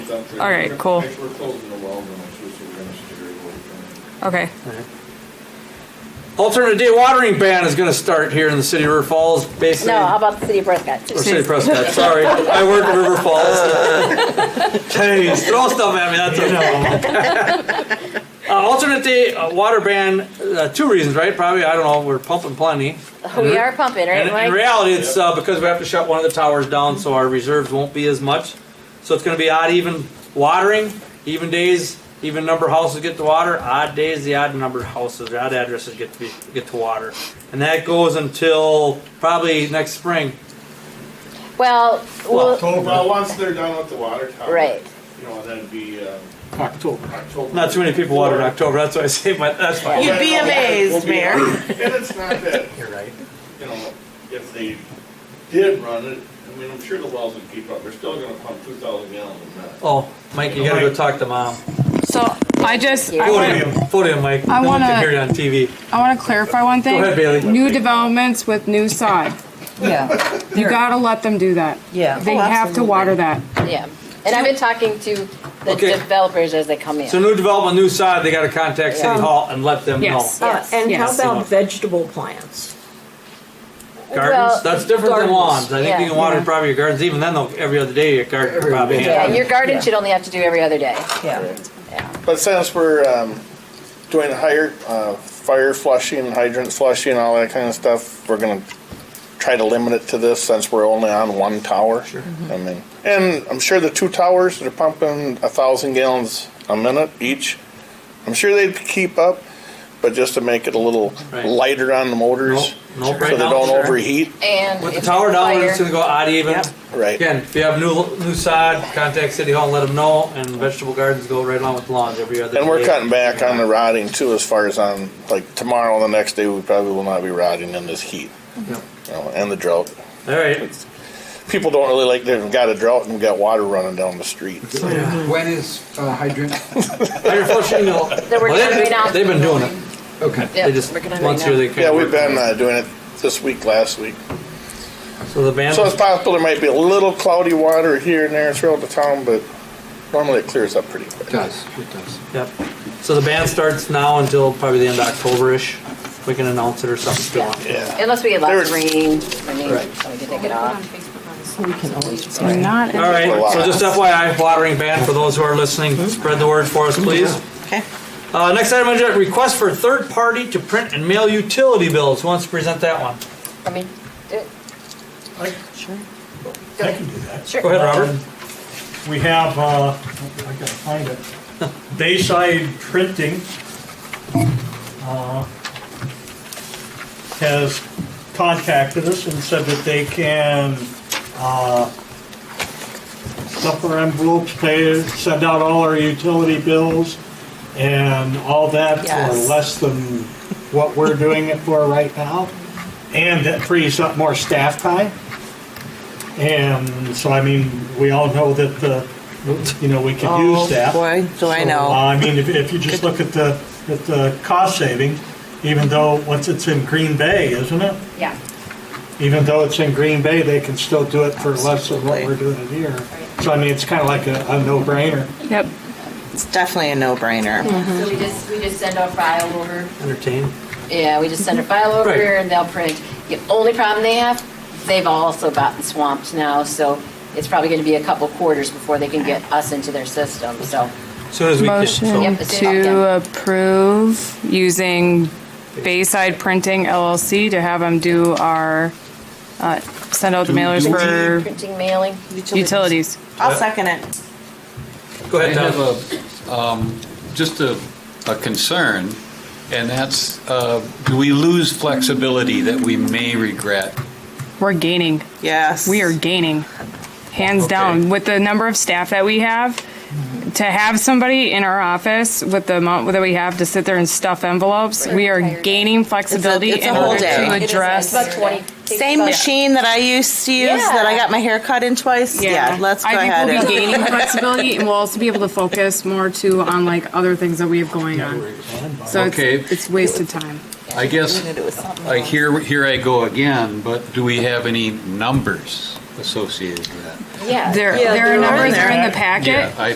done for you. All right, We're gonna cool. Make sure we're closing the well next week, so we're gonna steer it away from Okay. Alternative day watering ban is gonna start here in the city of River Falls, basically. No, how about the city of Prescott? Or City of Prescott, sorry. I work in River Falls. Jeez, throw stuff at me, that's okay. Uh, alternate day uh, water ban, uh, two reasons, right? Probably, I don't know, we're pumping plenty. We are And pumping, right, in Mike? reality, it's uh, because we have to shut one of the towers down, so our reserves won't be as much. So it's gonna be odd even watering, even days, even number of houses get to water, odd days, the odd number of houses, the odd addresses get to be, get to water. And that goes until probably next spring. Well, Well, we'll- it. Well, once they're done with the water tower. Right. You know, that'd be, um, October. October. Not too many people water in October, that's why I say, but that's fine. You'd be amazed, We'll be- Mayor. And it's not that, You're right. you know, if they did run it, I mean, I'm sure the wells would keep up. They're still gonna pump two thousand gallons a minute. Oh, Mike, you gotta go talk to mom. So I just I want Podium, podium, Mike. I No one wanna- can hear you on TV. I want to clarify one thing. ahead, Bailey. New developments with new sod. Yeah, You gotta let them do that. Yeah. They Oh, have to absolutely. water that. yeah. And I've been talking to the Okay. developers as they come in. So new development, new side, they gotta contact City Yeah. Hall and let them know. Yes. Uh, Yes. And how Yes. Yeah. about vegetable plants? Well, Gardens, that's different than gardens, lawns. I think you yeah. can water probably your gardens, even then, though, every other day, your garden probably. Yeah, Yeah. your garden Yeah. should only have to do every other day. Yeah. But since we're um, doing higher uh, fire flushing, hydrant flushing, all that kind of stuff, we're going to try to limit it to this since we're only on one tower. Sure. I mean, and I'm sure the two towers they're pumping a thousand gallons a minute each. I'm sure they'd keep up, but just to make it a little Right. lighter on the motors, Nope, nope, so right they now, don't sure. overheat. And With the if tower down, we're fire- just gonna go odd even. Yep. Right. Again, if you have new, new sod, contact City Hall and let them know, and vegetable gardens go right along with lawns every other day. And we're cutting back on the rotting too, as far as on like tomorrow and the next day, we probably will not be rotting in this heat. Yep. You know, and the drought. All right. people don't really like they've got a drought and got water running down the street. When is uh, hydrant? Iron flushing, no. Well, They're working on it they've- right now. They've been doing it. Okay. Yeah, They just, we're gonna once right here, now. they can. Yeah, we've been uh, doing it this week, last week. So the band, So it's possible there might be a little cloudy water here and there throughout the town, but normally it clears up pretty quick. It does, it does. yep. So the band starts now until probably the end of October-ish. We can announce it or something if you want. Yeah. Unless we get There lots was- of rain, I mean, so we can take it off. Not. All right, so just FYI, watering ban for those who are listening, spread the word for us, please. okay. Uh, next item on the agenda, request for third party to print and mail utility bills. Who wants to present that one? I mean, do it. I can do that. Go ahead, Robert. We have, uh, I gotta find it, Bayside Printing, uh, has contacted us and said that they can, uh, suffer envelopes, pay, send out all our utility bills and all that for Yes. less than what we're doing it for right now. And that frees up more staff time. And so, I mean, we all know that the, you know, we could use that. Oh, Boy, do I Uh, know. I mean, if, if you just look at the, at the cost savings, even though, once it's in Green Bay, isn't it? yeah. Even though it's in Green Bay, they can still do it for less than what we're doing it here. So I mean, it's kind of like a, a no-brainer. Yep. It's definitely a no-brainer. So we just, we just send our file over. Entertain. Yeah, we just send a file over Right. and they'll print. The only problem they have, they've also gotten swamped now, so it's probably gonna be a couple quarters before they can get us into their system, so. Soon as we can. Motion so- Yep, it's up, to yeah. approve using Bayside Printing LLC to have them do our, uh, send out the mailers for Printing, mailing. utilities. I'll second it. Go I ahead, have Tom. a, um, just a, a concern, and that's, uh, do we lose flexibility that we may regret? We're gaining. Yes. We are gaining, hands down, with the number of staff that we have. To have somebody in our office with the amount that we have to sit there and stuff envelopes, we are gaining flexibility it's a in whole order day. to It address. About twenty. Same machine that I used to use that I Yeah. got my hair cut in twice. Yeah, let's go I think ahead. we'll and- be gaining flexibility, and we'll also be able to focus more too on like other things that we have going on. So Okay. it's, it's wasted time. I guess, I here, here I go again, but do we have any numbers associated with that? Yeah. There, there are Yeah, they're on numbers there. are in the packet. Yeah, I